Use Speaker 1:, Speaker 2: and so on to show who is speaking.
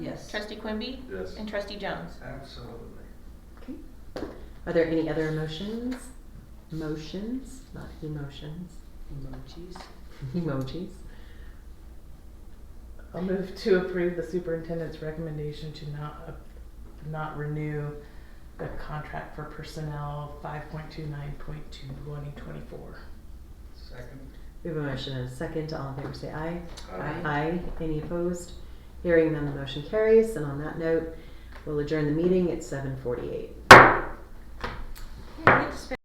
Speaker 1: Yes.
Speaker 2: Trustee Quimby
Speaker 3: Yes.
Speaker 2: and Trustee Jones.
Speaker 3: Absolutely.
Speaker 4: Okay. Are there any other emotions? Motions, not emotions.
Speaker 1: Emojis.
Speaker 4: Emojis.
Speaker 5: I'll move to approve the superintendent's recommendation to not, ap- not renew the contract for personnel five point two nine point two twenty twenty-four.
Speaker 3: Second.
Speaker 4: We have a motion and a second. All in favor say aye.
Speaker 1: Aye.
Speaker 4: Any opposed? Hearing none, the motion carries. And on that note, we'll adjourn the meeting at seven forty-eight.